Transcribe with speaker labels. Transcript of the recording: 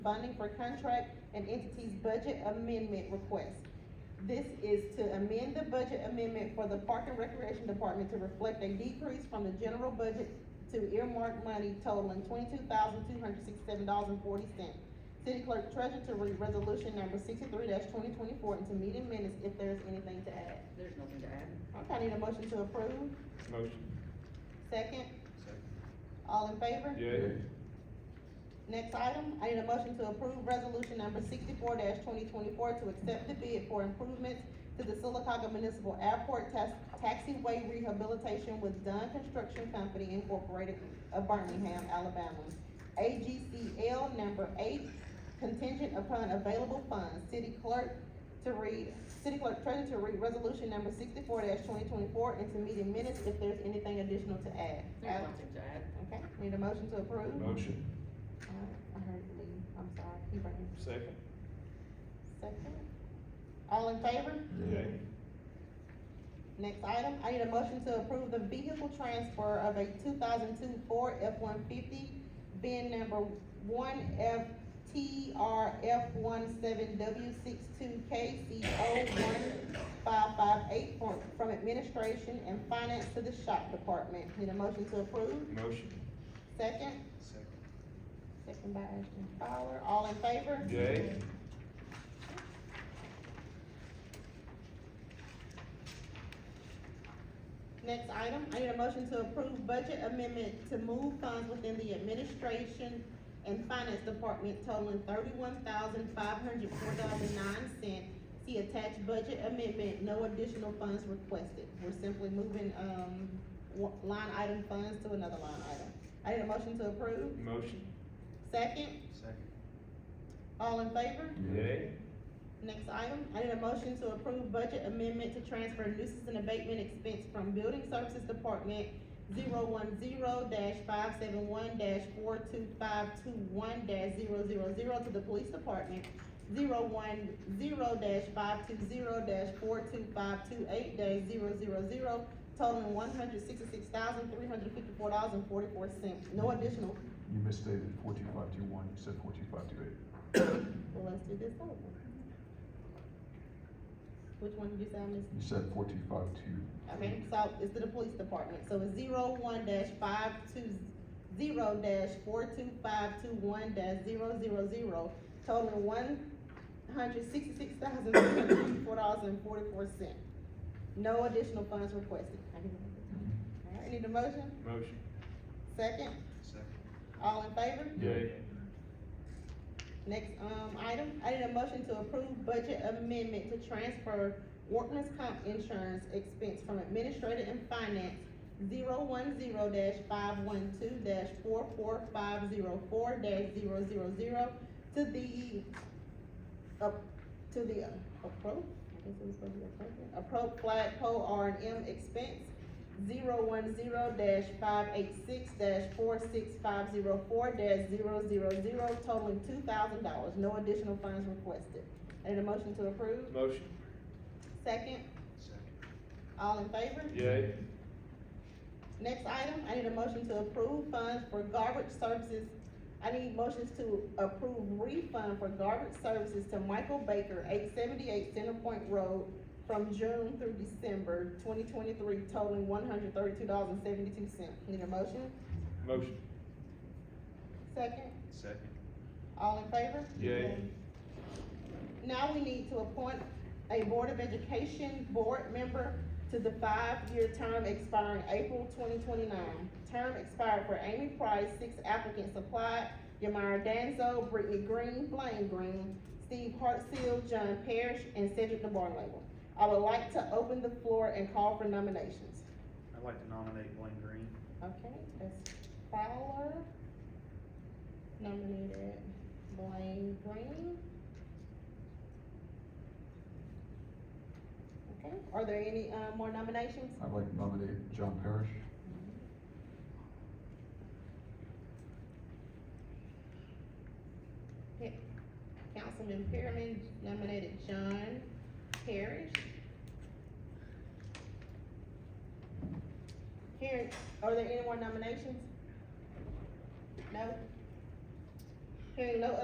Speaker 1: bonding for contract and entities budget amendment request. This is to amend the budget amendment for the Park and Recreation Department to reflect a decrease from the general budget to earmark money totaling twenty-two thousand, two hundred sixty-seven dollars and forty cents. City Clerk Treasurer to read resolution number sixty-three twenty twenty-four into meeting minutes if there's anything to add.
Speaker 2: There's nothing to add.
Speaker 1: Okay, I need a motion to approve.
Speaker 3: Motion.
Speaker 1: Second,
Speaker 3: Second.
Speaker 1: all in favor?
Speaker 3: Yay.
Speaker 1: Next item, I need a motion to approve resolution number sixty-four twenty twenty-four to accept the bid for improvements to the Silicaca Municipal Airport Tas- Taxiway Rehabilitation with Dunn Construction Company Incorporated of Birmingham, Alabama. AGCL number eight, contingent upon available funds. City clerk to read, city clerk treasurer to read resolution number sixty-four twenty twenty-four and to meeting minutes if there's anything additional to add.
Speaker 2: There's nothing to add.
Speaker 1: Okay, need a motion to approve?
Speaker 3: Motion.
Speaker 1: Alright, I heard Lee, I'm sorry, he right here.
Speaker 3: Second.
Speaker 1: Second. All in favor?
Speaker 3: Yay.
Speaker 1: Next item, I need a motion to approve the vehicle transfer of a two thousand two Ford F one fifty, VIN number one F T R F one seven W six two K C O one five five eight from, from administration and finance to the shop department. Need a motion to approve?
Speaker 3: Motion.
Speaker 1: Second?
Speaker 3: Second.
Speaker 1: Second by Ashton Fowler. All in favor?
Speaker 3: Yay.
Speaker 1: Next item, I need a motion to approve budget amendment to move funds within the administration and finance department totaling thirty-one thousand five hundred four dollars and nine cents. See attached budget amendment, no additional funds requested. We're simply moving, um, wa- line item funds to another line item. I need a motion to approve.
Speaker 3: Motion.
Speaker 1: Second,
Speaker 3: Second.
Speaker 1: all in favor?
Speaker 3: Yay.
Speaker 1: Next item, I need a motion to approve budget amendment to transfer nuisance and abatement expense from Building Services Department zero one zero dash five seven one dash four two five two one dash zero zero zero to the Police Department zero one zero dash five two zero dash four two five two eight dash zero zero zero totaling one hundred sixty-six thousand three hundred fifty-four dollars and forty-four cents. No additional,
Speaker 4: You misstated fourteen five two one, you said fourteen five two eight.
Speaker 1: well, let's do this over. Which one did you say I missed?
Speaker 4: You said fourteen five two.
Speaker 1: Okay, so it's to the police department, so it's zero one dash five two, zero dash four two five two one dash zero zero zero, totaling one hundred sixty-six thousand, three hundred fifty-four dollars and forty-four cent. No additional funds requested. Alright, need a motion?
Speaker 3: Motion.
Speaker 1: Second,
Speaker 3: Second.
Speaker 1: all in favor?
Speaker 3: Yay.
Speaker 1: Next, um, item, I need a motion to approve budget amendment to transfer workman's comp insurance expense from administrative and finance zero one zero dash five one two dash four four five zero four dash zero zero zero to the up, to the appro, I guess it was supposed to be appropriate, appro flagpole R and M expense zero one zero dash five eight six dash four six five zero four dash zero zero zero totaling two thousand dollars, no additional funds requested. I need a motion to approve,
Speaker 3: Motion.
Speaker 1: second,
Speaker 3: Second.
Speaker 1: all in favor?
Speaker 3: Yay.
Speaker 1: Next item, I need a motion to approve funds for garbage services. I need motions to approve refund for garbage services to Michael Baker, eight seventy-eight Center Point Road, from June through December twenty twenty-three totaling one hundred thirty-two dollars and seventy-two cents. Need a motion?
Speaker 3: Motion.
Speaker 1: Second,
Speaker 3: Second.
Speaker 1: all in favor?
Speaker 3: Yay.
Speaker 1: Now we need to appoint a Board of Education Board Member to the five-year term expiring April twenty twenty-nine. Term expired for Amy Price, six applicants applied, Yamira Danzo, Brittany Green, Blaine Green, Steve Hartsfield, John Parrish, and Cedric DeBarnlable. I would like to open the floor and call for nominations.
Speaker 5: I'd like to nominate Blaine Green.
Speaker 1: Okay, that's Fowler. Nominated Blaine Green. Okay, are there any, uh, more nominations?
Speaker 4: I'd like to nominate John Parrish.
Speaker 1: Councilman Pearman nominated John Parrish. Karen, are there any more nominations? No? Hearing no